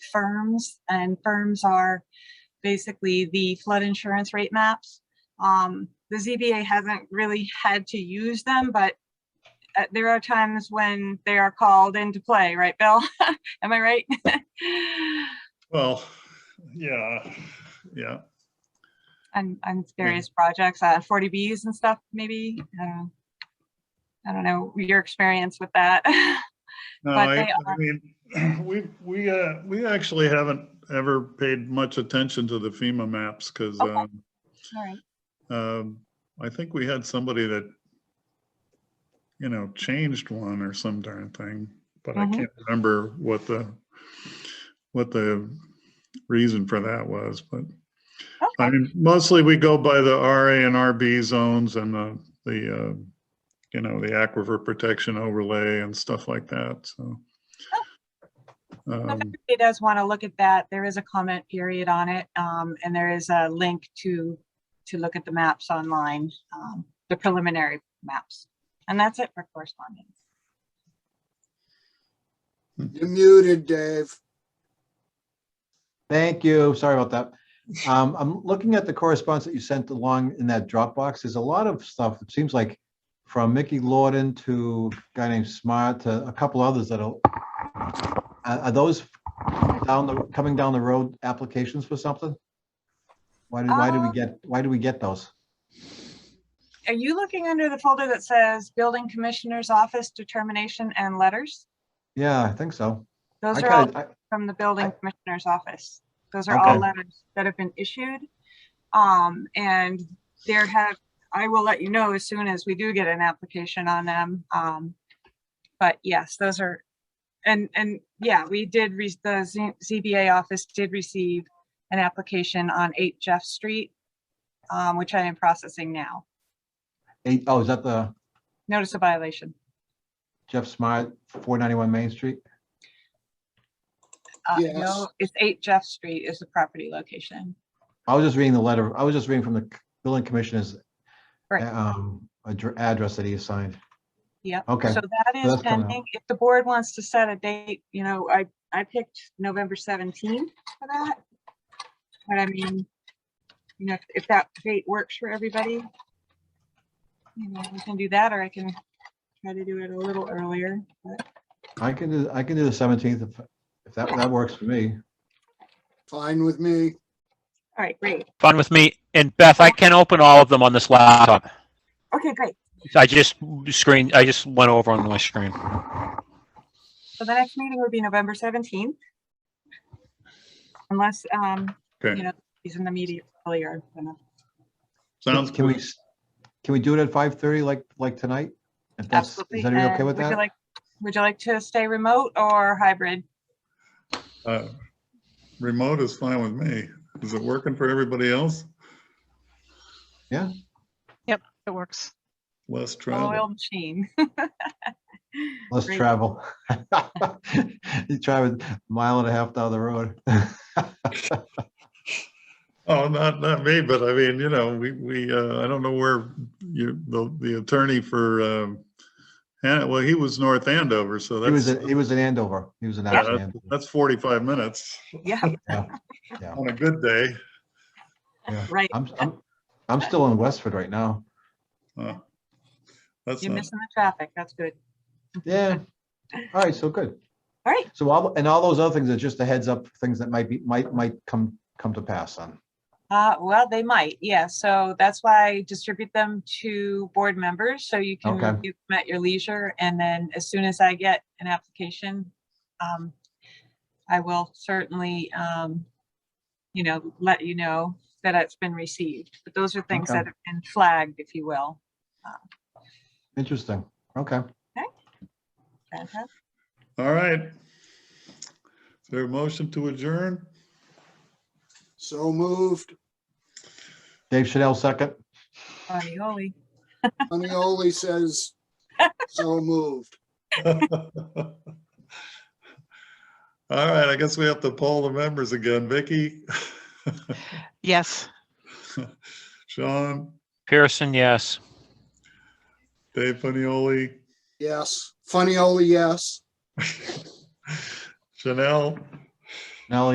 firms, and firms are basically the flood insurance rate maps. Um, The ZBA hasn't really had to use them, but uh, there are times when they are called into play, right, Bill? Am I right? Well, yeah, yeah. On, on various projects, uh, 40Bs and stuff, maybe? I don't know. I don't know your experience with that. No, But I, they I mean, we, we, uh, we actually haven't ever paid much attention to the FEMA maps because, Okay. um, All right. um, I think we had somebody that, you know, changed one or some darn thing, but I Mhm. can't remember what the, what the reason for that was, but I Okay. mean, mostly we go by the RA and RB zones and the, the, uh, you know, the aquifer protection overlay and stuff like that, so. Oh. So If Um, anybody does want to look at that, there is a comment period on it, um, and there is a link to, to look at the maps online, um, the preliminary maps. And that's it for correspondence. You're muted, Dave. Thank you. Sorry about that. Um, I'm looking at the correspondence that you sent along in that Dropbox. There's a lot of stuff, it seems like, from Mickey Lorden to a guy named Smart to a couple others that are, are are those down the, coming down the road applications for something? Why did, why did we Um, get, why did we get those? Are you looking under the folder that says Building Commissioner's Office Determination and Letters? Yeah, I think so. I Those are all kinda, I- from the building I- commissioner's office. Those are all Okay. letters that have been issued. Um, and there have, I will let you know as soon as we do get an application on them. Um, but yes, those are, and, and yeah, we did, re- the Z- ZBA office did receive an application on eight Jeff Street, um, which I am processing now. eight, oh, is that the Notice of violation. Jeff Smart, 491 Main Street? Uh, Yes. no, it's eight Jeff Street is the property location. I was just reading the letter, I was just reading from the c- building commissioner's Right. um, addr- address that he assigned. Yep. Okay, So that is that's coming up. pending. If the board wants to set a date, you know, I, I picked November seventeenth for that. But I mean, you know, if- if that date works for everybody, you know, we can do that, or I can try to do it a little earlier. but- I can do, I can do the seventeenth if, if that, that works for me. Fine with me. All right, great. Fun with me. And Beth, I can open all of them on this laptop. Okay, great. I just screen, I just went over on my screen. So the next meeting would be November seventeenth. Unless, um, you Okay, know, he's in the media earlier. I don't know. sounds, Can we, good. s- can we do it at five thirty like, like tonight? If that's, Absolutely. is everybody okay And with would you that? like- Would you like to stay remote or hybrid? uh, remote is fine with me. Is it working for everybody else? It works. Less Oil travel. machine. Let's Great. travel. You travel a mile and a half down the road. Oh, not, not me, but I mean, you know, we, we, uh, I don't know where you, the, the attorney for, um, Han- well, he was North Andover, so He was, that's, in- he was in Andover. He was in yeah, Andover. that's- that's 45 minutes Yeah, on a good day. right. I'm, I'm, I'm still in Westford right now. Uh, That's You're not, missing the traffic. That's good. Yeah. All right, so good. All right. So all, and all those other things are just a heads up, things that might be, might, might come, come to pass on. Uh, well, they might. Yeah. So that's why I distribute them to board members so you can Okay. review them at your leisure. And then as soon as I get an application, um, I will certainly, um, you know, let you know that it's been received. But those are things Okay. that have been flagged, if you will. Interesting. Okay. Fantastic. all right. Is there a motion to adjourn? So moved. Dave Chanel second. Funny, holy. Funnyoli says, so moved. All right, I guess we have to poll the members again. Vicky, Yes. Sean, Pearson, yes. Dave Panioli, Yes. Funnyoli, yes. Chanel,